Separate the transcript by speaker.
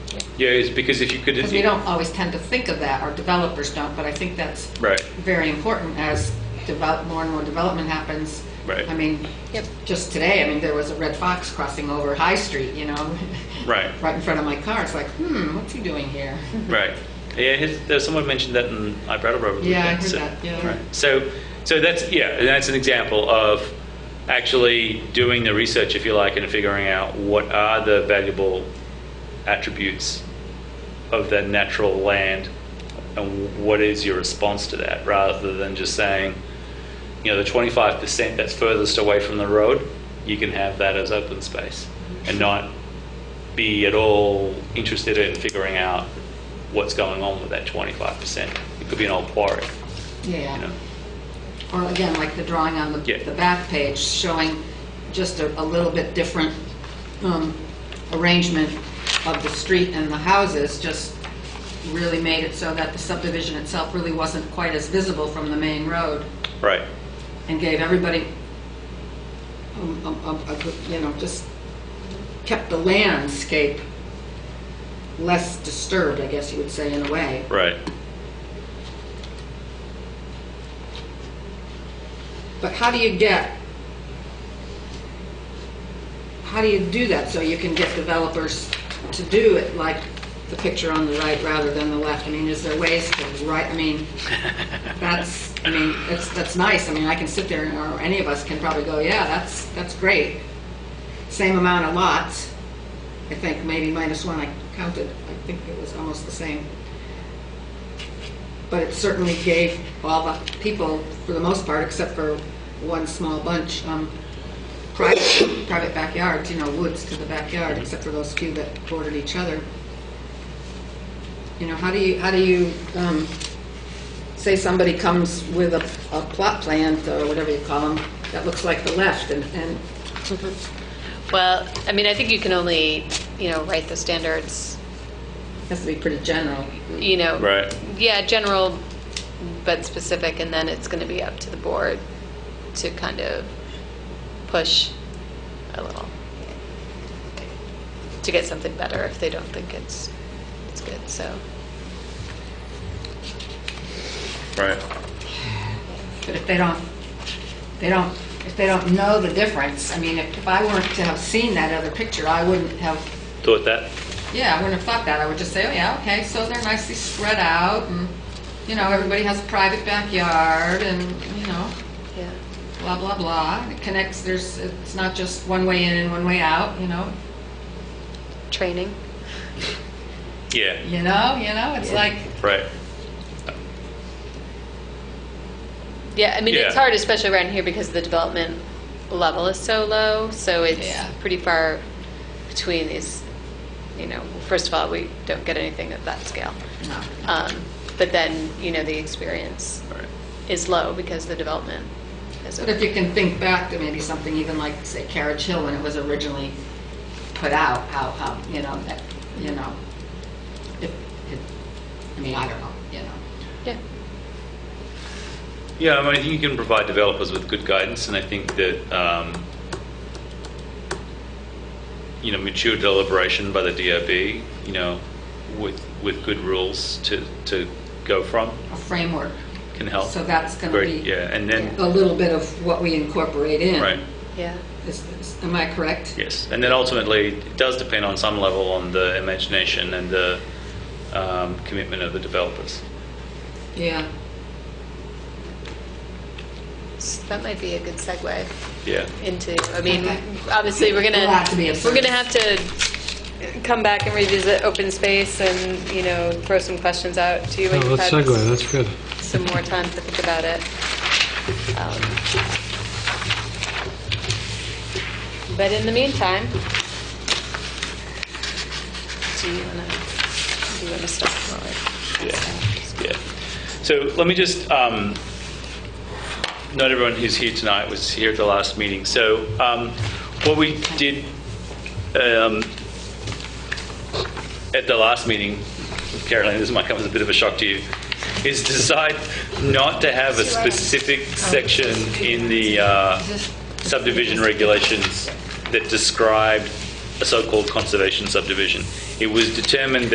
Speaker 1: Yeah, it's because if you could.
Speaker 2: Because we don't always tend to think of that, our developers don't, but I think that's
Speaker 1: Right.
Speaker 2: very important as develop, more and more development happens.
Speaker 1: Right.
Speaker 2: I mean,
Speaker 3: Yep.
Speaker 2: just today, I mean, there was a red fox crossing over High Street, you know?
Speaker 1: Right.
Speaker 2: Right in front of my car, it's like, hmm, what's he doing here?
Speaker 1: Right. Yeah, his, there, someone mentioned that in I Brattleboro. over the
Speaker 2: Yeah, I
Speaker 1: weekend,
Speaker 2: heard
Speaker 1: so-
Speaker 2: that, yeah.
Speaker 1: Right. So, so that's yeah, and that's an example of actually doing the research, if you like, and figuring out what are the valuable attributes of that natural land, and what is your response to that, rather than just saying, you know, the 25% that's furthest away from the road, you can have that as open space, and not be at all interested in figuring out what's going on with that 25%. It could be an old quarry, you
Speaker 2: Yeah.
Speaker 1: know?
Speaker 2: Or again, like the drawing on the,
Speaker 1: Yeah.
Speaker 2: the back page, showing just a, a little bit different um, arrangement of the street and the houses, just really made it so that the subdivision itself really wasn't quite as visible from the main road,
Speaker 1: Right.
Speaker 2: and gave everybody, um, um, um, a good- you know, just kept the landscape less disturbed, I guess you would say, in a way.
Speaker 1: Right.
Speaker 2: But how do you get, how do you do that so you can get developers to do it like the picture on the right rather than the left? I mean, is there ways to write, I mean, that's, I mean, that's, that's nice. I mean, I can sit there and- or any of us can probably go, yeah, that's, that's great. Same amount of lots, I think, maybe minus one, I counted, I think it was almost the same but it certainly gave all the people, for the most part, except for one small bunch, um, private, private backyards, you know, woods to the backyard, except for those few that bordered each other. You know, how do you, how do you, um, say somebody comes with a, a plot plan, or whatever you call them, that looks like the left, and, and,
Speaker 3: Well, I mean, I think you can only, you know, write the standards,
Speaker 2: has to be pretty general.
Speaker 3: you know.
Speaker 1: Right.
Speaker 3: Yeah, general, but specific, and then it's going to be up to the board to kind of push a little to get something better if they don't think it's, it's good, so.
Speaker 1: Right.
Speaker 2: But if they don't, they don't, if they don't know the difference, I mean, if if I weren't to have seen that other picture, I wouldn't have
Speaker 1: Thought that?
Speaker 2: Yeah, I wouldn't have thought that. I would just say, oh yeah, okay, so they're nicely spread out and, you know, everybody has a private backyard and, you know,
Speaker 3: Yeah.
Speaker 2: blah, blah, blah. It connects, there's, it's not just one way in and one way out, you know?
Speaker 3: Training.
Speaker 1: Yeah.
Speaker 2: You know, you know, it's like,
Speaker 1: Right.
Speaker 3: Yeah, I mean, it's
Speaker 1: Yeah.
Speaker 3: hard, especially around here, because the development level is so low, so it's
Speaker 2: Yeah.
Speaker 3: pretty far between these, you know, first of all, we don't get anything at that scale.
Speaker 2: no.
Speaker 3: Um, But then, you know, the experience
Speaker 1: Right.
Speaker 3: is low because the development is.
Speaker 2: But if you can think back to maybe something even like, say, Carriage Hill when it was originally put out, how, how, you know, that, you know, if, if, I mean, I don't know, you know?
Speaker 3: Yeah,
Speaker 1: Yeah, I mean, I think you can provide developers with good guidance, and I think that, um, you know, mature deliberation by the DRB, you know, with, with good rules to, to go from
Speaker 2: A framework.
Speaker 1: can help.
Speaker 2: So that's gonna
Speaker 1: Very-
Speaker 2: be.
Speaker 1: Yeah, and then,
Speaker 2: a little bit of what we incorporate in.
Speaker 1: right.
Speaker 3: yeah,
Speaker 2: Is- is- Am I correct?
Speaker 1: Yes, and then ultimately, it does depend on some level on the imagination and the um, commitment of the developers.
Speaker 2: Yeah.
Speaker 3: So that might be a good segue
Speaker 1: Yeah,
Speaker 3: into, I mean,
Speaker 2: Okay.
Speaker 3: obviously, we're gonna.
Speaker 2: It'll have to be a
Speaker 3: We're gonna have to come back and revisit open space and, you know, throw some questions out to you.
Speaker 4: No,
Speaker 3: when you've
Speaker 4: that's
Speaker 3: had
Speaker 4: segue, that's good.
Speaker 3: some more time to think about it. Um, But in the meantime, do you want to, do you want to step forward?
Speaker 1: yeah, yeah. So let me just, um, not everyone who's here tonight was here at the last meeting. So um, what we did um, at the last meeting, Caroline, this might come as a bit of a shock to you, is decide not to have a specific section in the uh, subdivision regulations that described a so-called conservation subdivision. It was determined